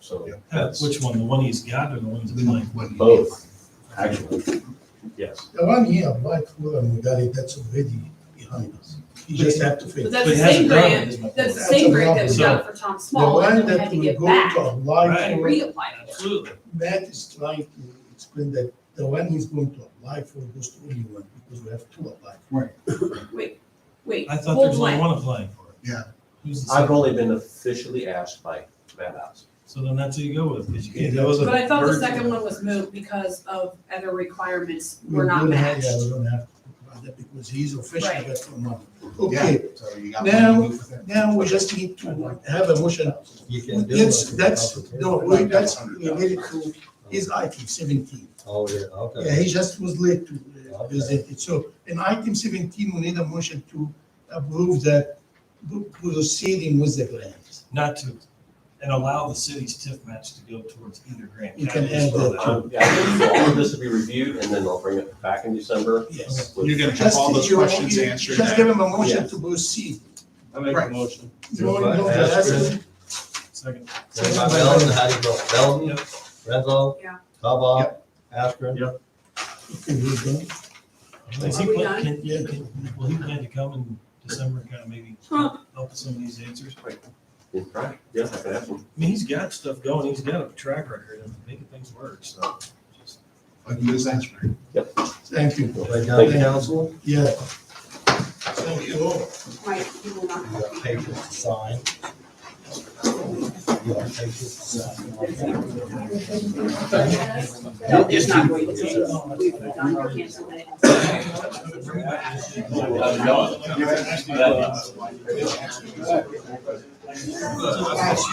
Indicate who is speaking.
Speaker 1: so
Speaker 2: Yeah.
Speaker 1: that's
Speaker 3: Which one, the one he's got or the one he's applying?
Speaker 2: Mm-hmm.
Speaker 1: both, actually, yes.
Speaker 2: The one he applied for and we got it, that's already behind us. You just have to
Speaker 4: But
Speaker 2: finish.
Speaker 4: that's
Speaker 3: But
Speaker 4: the
Speaker 3: he hasn't
Speaker 4: same
Speaker 3: done it,
Speaker 4: grant,
Speaker 3: is my
Speaker 4: that's the
Speaker 3: point.
Speaker 4: same
Speaker 2: That's
Speaker 4: grant that we
Speaker 3: another
Speaker 4: got for Tom
Speaker 2: The
Speaker 4: Small, and
Speaker 2: one
Speaker 4: then we
Speaker 2: that
Speaker 4: had to
Speaker 2: will
Speaker 4: get
Speaker 2: go
Speaker 4: back
Speaker 2: to apply
Speaker 3: Right.
Speaker 4: and
Speaker 2: for,
Speaker 4: reapply for.
Speaker 3: Absolutely.
Speaker 2: Matt is trying to explain that the one he's going to apply for goes to only one because we have two apply.
Speaker 4: Wait, wait,
Speaker 3: I thought there
Speaker 4: hold
Speaker 3: was only
Speaker 4: on.
Speaker 3: one applying for it.
Speaker 2: Yeah.
Speaker 3: Who's the
Speaker 1: I've
Speaker 3: second?
Speaker 1: only been officially asked by Matt House.
Speaker 3: So then that's who you go with, because you can't, that was a.
Speaker 4: But I thought the
Speaker 3: bird-
Speaker 4: second one was moved because of other requirements
Speaker 2: We
Speaker 4: were not
Speaker 2: don't have-
Speaker 4: matched.
Speaker 2: Yeah, we don't have to talk about that because he's officially
Speaker 4: Right.
Speaker 2: got one month.
Speaker 5: Yeah,
Speaker 2: Okay,
Speaker 5: so you got.
Speaker 2: Now-
Speaker 5: one to do for them.
Speaker 2: now we just need to have a motion.
Speaker 6: You can do it.
Speaker 2: That's, that's, no, wait, that's related to his item seventeen.
Speaker 6: Oh, yeah,
Speaker 2: Yeah,
Speaker 6: okay.
Speaker 2: he just was late to uh,
Speaker 6: Okay.
Speaker 2: present it. So in item seventeen, we need a motion to approve the proceeding with the grant.
Speaker 3: Not to, and allow the city's TIF match to go towards either grant.
Speaker 2: You can
Speaker 3: I just
Speaker 2: add
Speaker 3: throw
Speaker 2: that
Speaker 3: out.
Speaker 1: Um, yeah, I think all of this will be reviewed and then I'll bring it back in December.
Speaker 2: Yes.
Speaker 1: with-
Speaker 5: You're gonna have all those
Speaker 2: Just- you-
Speaker 5: questions
Speaker 2: you-
Speaker 5: answered.
Speaker 2: Just give him a motion
Speaker 1: Yes.
Speaker 2: to proceed.
Speaker 7: I make a
Speaker 5: Right.
Speaker 7: motion.
Speaker 2: No, no,
Speaker 6: Yes,
Speaker 2: that's-
Speaker 3: Second.
Speaker 6: Second by Belton, how do you vote?
Speaker 2: Oh,
Speaker 6: Belton,
Speaker 3: Yep.
Speaker 6: Renzo.
Speaker 4: Yeah.
Speaker 6: Kaba, Askren.
Speaker 2: Okay, we're done.
Speaker 3: Is he
Speaker 4: Are we
Speaker 3: plan-
Speaker 4: done?
Speaker 3: can- yeah, can- Will he plan to come in December, and kind of maybe
Speaker 4: Huh.
Speaker 3: help with some of these answers? I
Speaker 1: Yeah, right. Yes, I can ask him.
Speaker 3: mean, he's got stuff going, he's got a track record of making things work, so. just-
Speaker 5: Like you was answering.
Speaker 2: Thank you.
Speaker 6: Right down
Speaker 1: Thank
Speaker 6: to
Speaker 2: you.
Speaker 6: council.
Speaker 2: Yeah. Thank you all.
Speaker 4: Mike, you will not.
Speaker 6: You got papers to sign. You got papers to sign.
Speaker 4: No, it's not going to change. We've done our cancel that.
Speaker 5: Yeah.
Speaker 7: Yeah.